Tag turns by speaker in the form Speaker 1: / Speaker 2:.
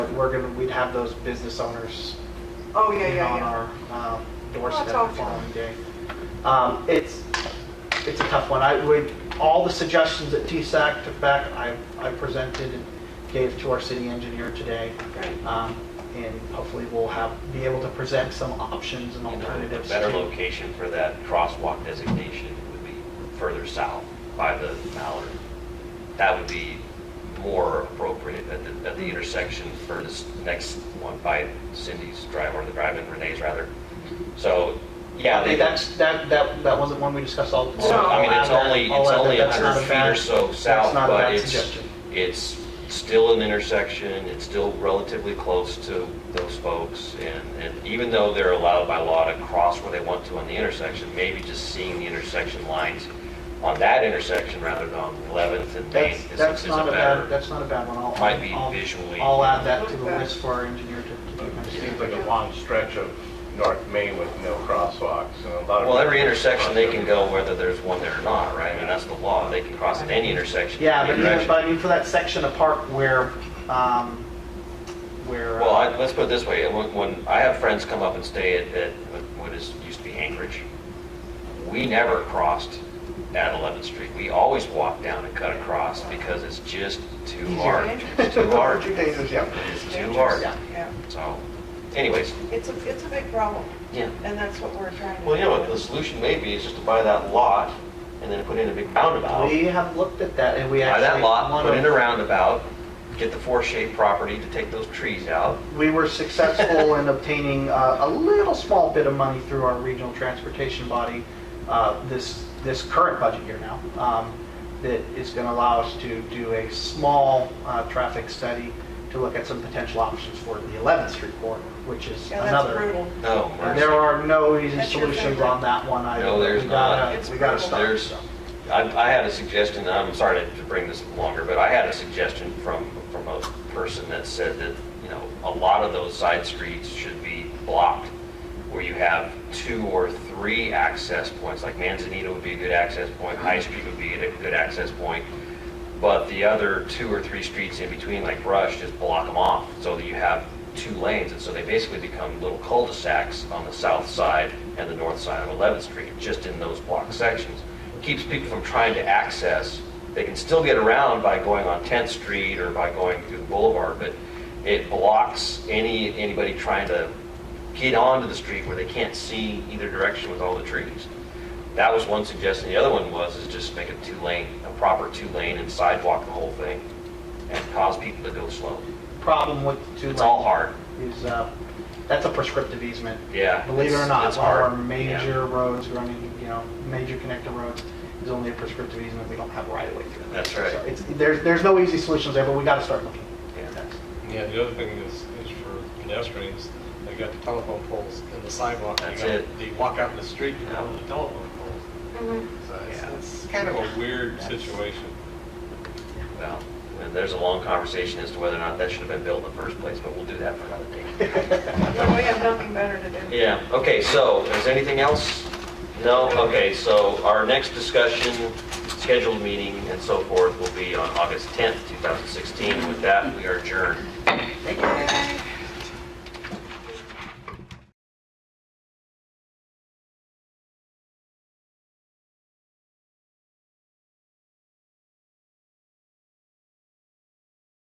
Speaker 1: we're gonna, we'd have those business owners
Speaker 2: Oh, yeah,
Speaker 1: being
Speaker 2: yeah,
Speaker 1: on
Speaker 2: yeah.
Speaker 1: our um, doorstep
Speaker 2: it's
Speaker 1: the
Speaker 2: helpful.
Speaker 1: following day. Um, It's, it's a tough one. I would, all the suggestions that TSAC took back, I, I presented and gave to our city engineer today.
Speaker 2: Right.
Speaker 1: Um, And hopefully we'll have, be able to present some options and
Speaker 3: You know,
Speaker 1: alternatives.
Speaker 3: A better
Speaker 1: to-
Speaker 3: location for that crosswalk designation would be further south by the Mallard. That would be more appropriate at the, at the intersection for this next one by Cindy's drive, or the drive in Renee's rather. So, yeah,
Speaker 1: Yeah,
Speaker 3: they,
Speaker 1: they-
Speaker 3: that's,
Speaker 1: that's, that, that, that wasn't one we discussed all.
Speaker 3: so, I mean, it's
Speaker 1: I'll add
Speaker 3: only,
Speaker 1: that- I'll
Speaker 3: it's
Speaker 1: add that.
Speaker 3: only
Speaker 1: That's not
Speaker 3: 100
Speaker 1: a
Speaker 3: feet
Speaker 1: bad-
Speaker 3: or so
Speaker 1: that's
Speaker 3: south,
Speaker 1: not a
Speaker 3: but
Speaker 1: bad
Speaker 3: it's,
Speaker 1: suggestion.
Speaker 3: it's still an intersection, it's still relatively close to those folks, and, and even though they're allowed by law to cross where they want to on the intersection, maybe just seeing the intersection lines on that intersection rather than on 11th and Main
Speaker 1: That's,
Speaker 3: is
Speaker 1: that's
Speaker 3: is
Speaker 1: not
Speaker 3: a
Speaker 1: a bad,
Speaker 3: better,
Speaker 1: that's not a bad one. I'll-
Speaker 3: Might be
Speaker 1: I'll-
Speaker 3: visually-
Speaker 1: I'll add that to the
Speaker 2: Okay.
Speaker 1: list for our engineer to- to.
Speaker 4: It
Speaker 1: keep
Speaker 4: seems like a long stretch of North Main with no crosswalks and a lot of.
Speaker 3: well, every intersection they can go whether there's one there or not, right? I mean, that's the law, they can cross at any intersection.
Speaker 1: Yeah,
Speaker 3: any
Speaker 1: but even,
Speaker 3: direction.
Speaker 1: but I mean, for that section of park where, um, where. uh,
Speaker 3: Well, I, let's put it this way, when, when I have friends come up and stay at, at what is, used to be Anchorage, we never crossed at 11th Street. We always walked down and cut across because it's just too hard. It's too hard.
Speaker 4: Too dangerous, yeah.
Speaker 3: It's too hard.
Speaker 1: Yeah.
Speaker 2: Yeah,
Speaker 3: So anyways,
Speaker 2: it's a, it's a big problem,
Speaker 3: yeah.
Speaker 2: and that's what we're trying to.
Speaker 3: Well, you know, what
Speaker 2: do.
Speaker 3: the solution may be is just to buy that lot and then put in a big roundabout.
Speaker 1: We have looked at that and we
Speaker 3: Buy
Speaker 1: actually.
Speaker 3: that lot,
Speaker 1: one
Speaker 3: put
Speaker 1: of-
Speaker 3: in a roundabout, get the four-shade property to take those trees out.
Speaker 1: We were successful in obtaining uh, a little small bit of money through our regional transportation body uh, this, this current budget year now, um, that is going to allow us to do a small uh, traffic study to look at some potential options for the 11th Street corridor, which is
Speaker 2: Yeah, that's
Speaker 1: another.
Speaker 2: brutal.
Speaker 3: No,
Speaker 1: And
Speaker 3: mercy.
Speaker 1: There are no easy
Speaker 2: That's your
Speaker 1: solutions
Speaker 2: favorite.
Speaker 1: on that one. either.
Speaker 3: No, there's
Speaker 1: We gotta-
Speaker 3: not.
Speaker 2: It's
Speaker 1: We got to
Speaker 2: brutal.
Speaker 1: stop.
Speaker 3: There's, I, I had a suggestion, and I'm sorry to to bring this longer, but I had a suggestion from, from a person that said that, you know, a lot of those side streets should be blocked, where you have two or three access points, like Manzanita would be a good access point, High Street would be a good access point, but the other two or three streets in between, like Rush, just block them off, so that you have two lanes, and so they basically become little cul-de-sacs on the south side and the north side of 11th Street, just in those block sections. Keeps people from trying to access, they can still get around by going on 10th Street or by going through the boulevard, but it blocks any, anybody trying to get onto the street where they can't see either direction with all the trees. That was one suggestion. The other one was, is just make a two-lane, a proper two-lane and sidewalk the whole thing and cause people to go slow.
Speaker 1: Problem with two
Speaker 3: It's all
Speaker 1: lanes
Speaker 3: hard.
Speaker 1: Is, uh, that's a prescriptive easement.
Speaker 3: Yeah.
Speaker 1: Believe it or
Speaker 3: it's-
Speaker 1: not,
Speaker 3: it's
Speaker 1: all our
Speaker 3: hard. Yeah.
Speaker 1: major roads running, you know, major connector roads is only a prescriptive easement. We don't have right of way through them.
Speaker 3: That's right.
Speaker 1: So it's, there's, there's no easy solutions there, but we got to start looking.
Speaker 3: Yeah.
Speaker 1: That's-
Speaker 5: Yeah, the other thing is, is for pedestrians, they got the telephone poles and the sidewalk. You
Speaker 3: That's
Speaker 5: got-
Speaker 3: it.
Speaker 5: They walk out in the street and have the telephone poles.
Speaker 2: Mhm.
Speaker 5: So it's,
Speaker 3: Yeah.
Speaker 5: it's kind of a weird situation.
Speaker 3: Well, and there's a long conversation as to whether or not that should have been built in the first place, but we'll do that for another day.
Speaker 2: No, we have nothing better to do.
Speaker 3: Yeah, okay, so is anything else? No? Okay, so our next discussion, scheduled meeting and so forth will be on August 10th, 2016. With that, we are adjourned.
Speaker 2: Yay.